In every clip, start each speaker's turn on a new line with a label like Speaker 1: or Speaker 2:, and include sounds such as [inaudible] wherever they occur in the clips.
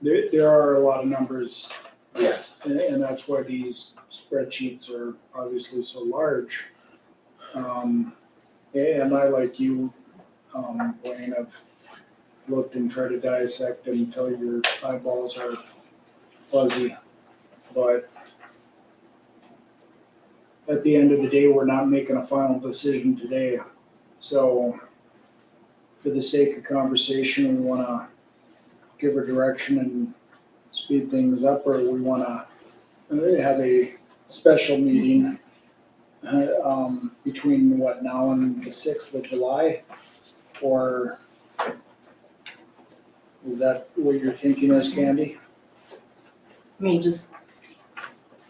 Speaker 1: There, there are a lot of numbers,
Speaker 2: Yeah.
Speaker 1: and, and that's why these spreadsheets are obviously so large. Um, and I, like you, um, Blaine, have looked and tried to dissect until your eyeballs are fuzzy. But at the end of the day, we're not making a final decision today. So for the sake of conversation, we wanna give her direction and speed things up, or we wanna uh, have a special meeting uh, um, between what, now and the sixth of July? Or is that what you're thinking is, Candy?
Speaker 3: I mean, just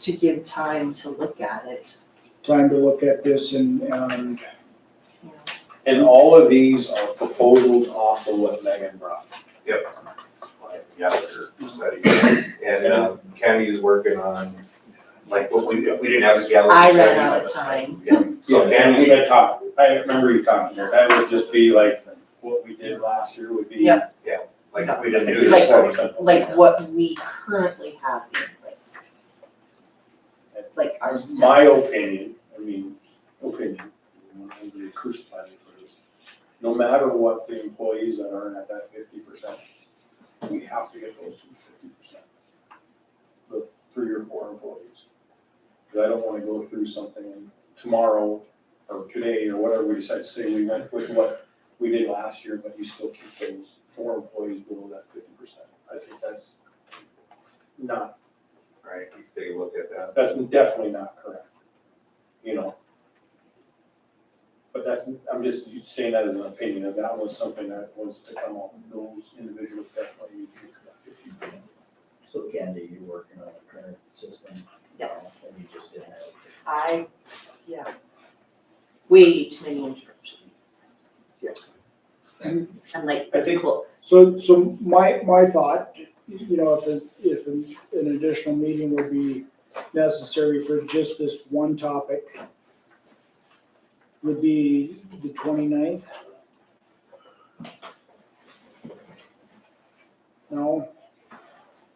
Speaker 3: to give time to look at it,
Speaker 1: Time to look at this and, um, and,
Speaker 3: you know.
Speaker 2: And all of these are proposals off of what Megan brought.
Speaker 4: Yeah, they're studying. And um, Kenny's working on, like, what we, if we didn't have a gallery.
Speaker 3: I
Speaker 4: study.
Speaker 3: ran out of time.
Speaker 4: Yeah, so
Speaker 5: Yeah,
Speaker 4: Kenny's
Speaker 5: we had talked, I remember you talking here, that would just be like, what we did last year would be.
Speaker 3: Yeah.
Speaker 4: like, if we didn't do
Speaker 3: Like-
Speaker 4: this study.
Speaker 3: Like what we currently have in place. Like our steps.
Speaker 5: My opinion, I mean, opinion, you know, I'm gonna crucify me for this. No matter what the employees that earn at that fifty percent, we have to get those to fifty percent. The three or four employees. Cause I don't wanna go through something tomorrow or today or whatever we decide to say, we went with what we did last year, but you still keep those four employees below that fifty percent. I think that's not
Speaker 4: Right, you can take a look at that.
Speaker 5: that's definitely not correct, you know? But that's, I'm just saying that as an opinion, if that was something that was to come up, those individuals definitely need to be corrected.
Speaker 6: So Candy, you're working on the current system?
Speaker 3: Yes.
Speaker 6: And you just didn't have.
Speaker 3: I, yeah. Way too many interruptions.
Speaker 2: Yeah.
Speaker 3: I'm like,
Speaker 5: I
Speaker 3: this
Speaker 5: think-
Speaker 3: close.
Speaker 1: so, so my, my thought, you know, if, a- if an an additional meeting would be necessary for just this one topic would be the 29th. No?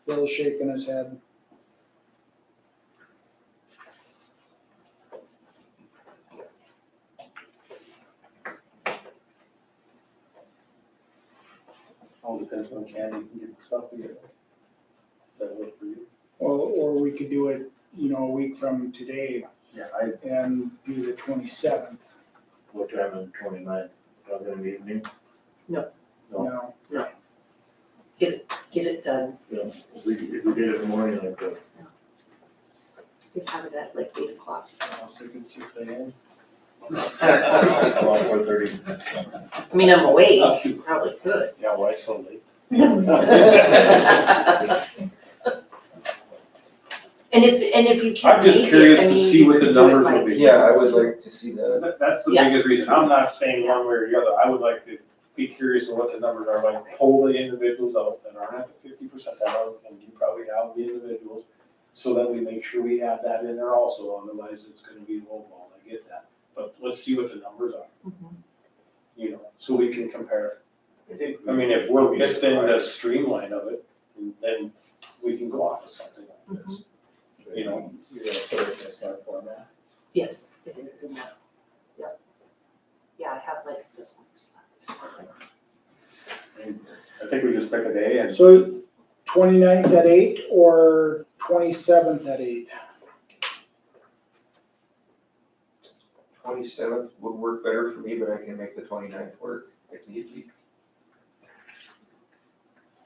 Speaker 1: Bill's shaking his head.
Speaker 5: All depends on Candy and get stuff together. That work for you?
Speaker 1: Or, or we could do it, you know, a week from today
Speaker 5: Yeah, I,
Speaker 1: and do the twenty-seventh.
Speaker 7: What time on the twenty-ninth, probably in the evening, No.
Speaker 1: Now,
Speaker 3: Get it done.
Speaker 7: if we, if we did it in the morning like uh, the
Speaker 3: We could have it at like eight o'clock.
Speaker 5: I'll say good six AM.
Speaker 7: around four
Speaker 8: [laughs]
Speaker 7: thirty.
Speaker 3: I mean, I'm awake, you probably could. [laughs]
Speaker 5: Yeah, why so late?
Speaker 3: And if, and if you can
Speaker 5: I'm just
Speaker 3: make it,
Speaker 5: curious
Speaker 3: I
Speaker 5: to
Speaker 3: mean,
Speaker 5: see
Speaker 3: you
Speaker 5: what
Speaker 3: can
Speaker 5: the
Speaker 3: do it
Speaker 5: numbers
Speaker 3: by
Speaker 5: will be.
Speaker 3: teams.
Speaker 2: Yeah, I would like to see that.
Speaker 5: That- That's the
Speaker 3: Yeah.
Speaker 5: biggest reason, I'm not saying one way or the other, I would like to be curious of what the numbers are, like pull the individuals out that aren't at the fifty percent, that are, and you probably have the individuals, so that we make sure we add that in there also, otherwise it's gonna be low ball, I get that, but let's see what the numbers are,
Speaker 3: Mhm.
Speaker 5: you know, so we can compare.
Speaker 4: I think
Speaker 5: I mean, if we're within the streamline of it, then we can go off of something like this, you know.
Speaker 6: You're gonna put it in a smart format?
Speaker 3: Yes, it is in that, yep. Yeah, I have like this one.
Speaker 5: I think we just pick a day and.
Speaker 1: so 29th at eight or twenty-seventh at eight?
Speaker 4: Twenty-seventh would work better for me, but I can make the twenty-ninth work if need be.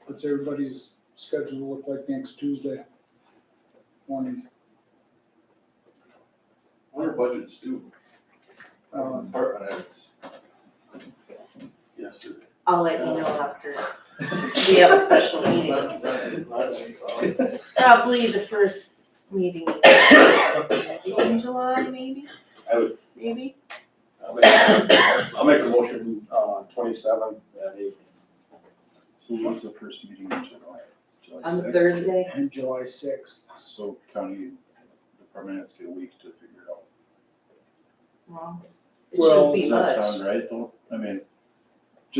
Speaker 1: What's everybody's schedule look like next Tuesday morning?
Speaker 9: What are budgets due?
Speaker 1: Um,
Speaker 9: Department items.
Speaker 5: Yes, sir.
Speaker 3: I'll let you know after we have a special meeting, probably the first meeting in July, maybe?
Speaker 5: I would-
Speaker 3: Maybe?
Speaker 5: I'll make- I'll make a motion, uh, twenty-seven at eight.
Speaker 8: So what's the first meeting in July? July
Speaker 3: On
Speaker 8: sixth?
Speaker 3: Thursday,
Speaker 1: and July sixth.
Speaker 8: So county department has to get a week to figure it out.
Speaker 3: well, it
Speaker 1: Well,
Speaker 3: shouldn't be
Speaker 8: Does
Speaker 3: much.
Speaker 8: that sound right though? I mean,